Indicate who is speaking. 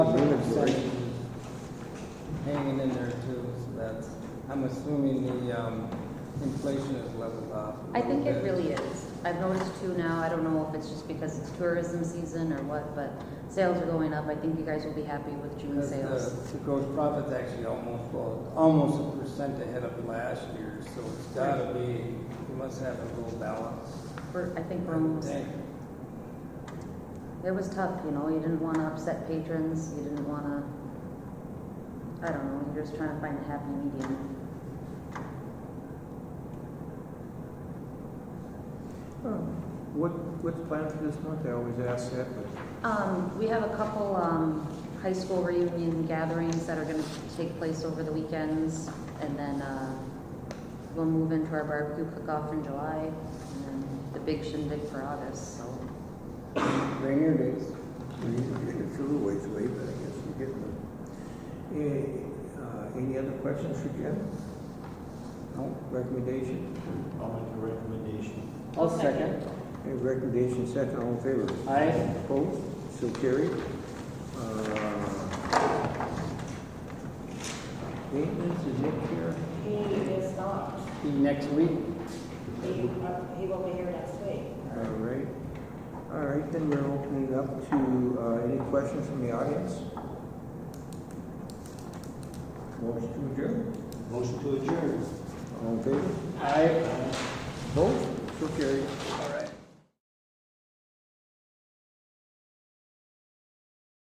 Speaker 1: in there too, so that's, I'm assuming the um, inflation is leveled off. a
Speaker 2: I think it
Speaker 1: little bit.
Speaker 2: really is. I've noticed too now, I don't know if it's just because it's tourism season or what, but sales are going up. I think you guys will be happy with June
Speaker 1: Because uh,
Speaker 2: sales.
Speaker 1: the- The gross profit's actually almost, well, almost a percent ahead of last year, so it's gotta be, you must have a little balance.
Speaker 2: We're, I think we're almost,
Speaker 1: Dang.
Speaker 2: it was tough, you know, you didn't wanna upset patrons, you didn't wanna, I don't know, you're just trying to find a happy medium.
Speaker 3: What, what's planned for this month? I always ask that, but
Speaker 2: Um, we have a couple, um, high school reunion gatherings that are gonna take place over the weekends, and then, uh, we'll move into our barbecue cook-off in July, and then the big shindig for August, so.
Speaker 1: Rainier days.
Speaker 3: it's a little ways away, but I guess we're getting there. Eh, uh, Any other questions for Jim? No, recommendation?
Speaker 4: I'll make a recommendation.
Speaker 1: I'll second.
Speaker 3: Any recommendation, second, all in favor?
Speaker 1: Aye.
Speaker 3: Opposed? So carried. Uh, Maintenance is Nick here?
Speaker 5: He is not.
Speaker 1: See you next week.
Speaker 5: He, uh, he will be here next week.
Speaker 3: All right. All right, then we're opening it up to uh, any questions from the audience? Motion to adjourn.
Speaker 4: Motion to adjourn.
Speaker 3: All in favor?
Speaker 1: Aye.
Speaker 3: Opposed? So carried.
Speaker 4: Aye.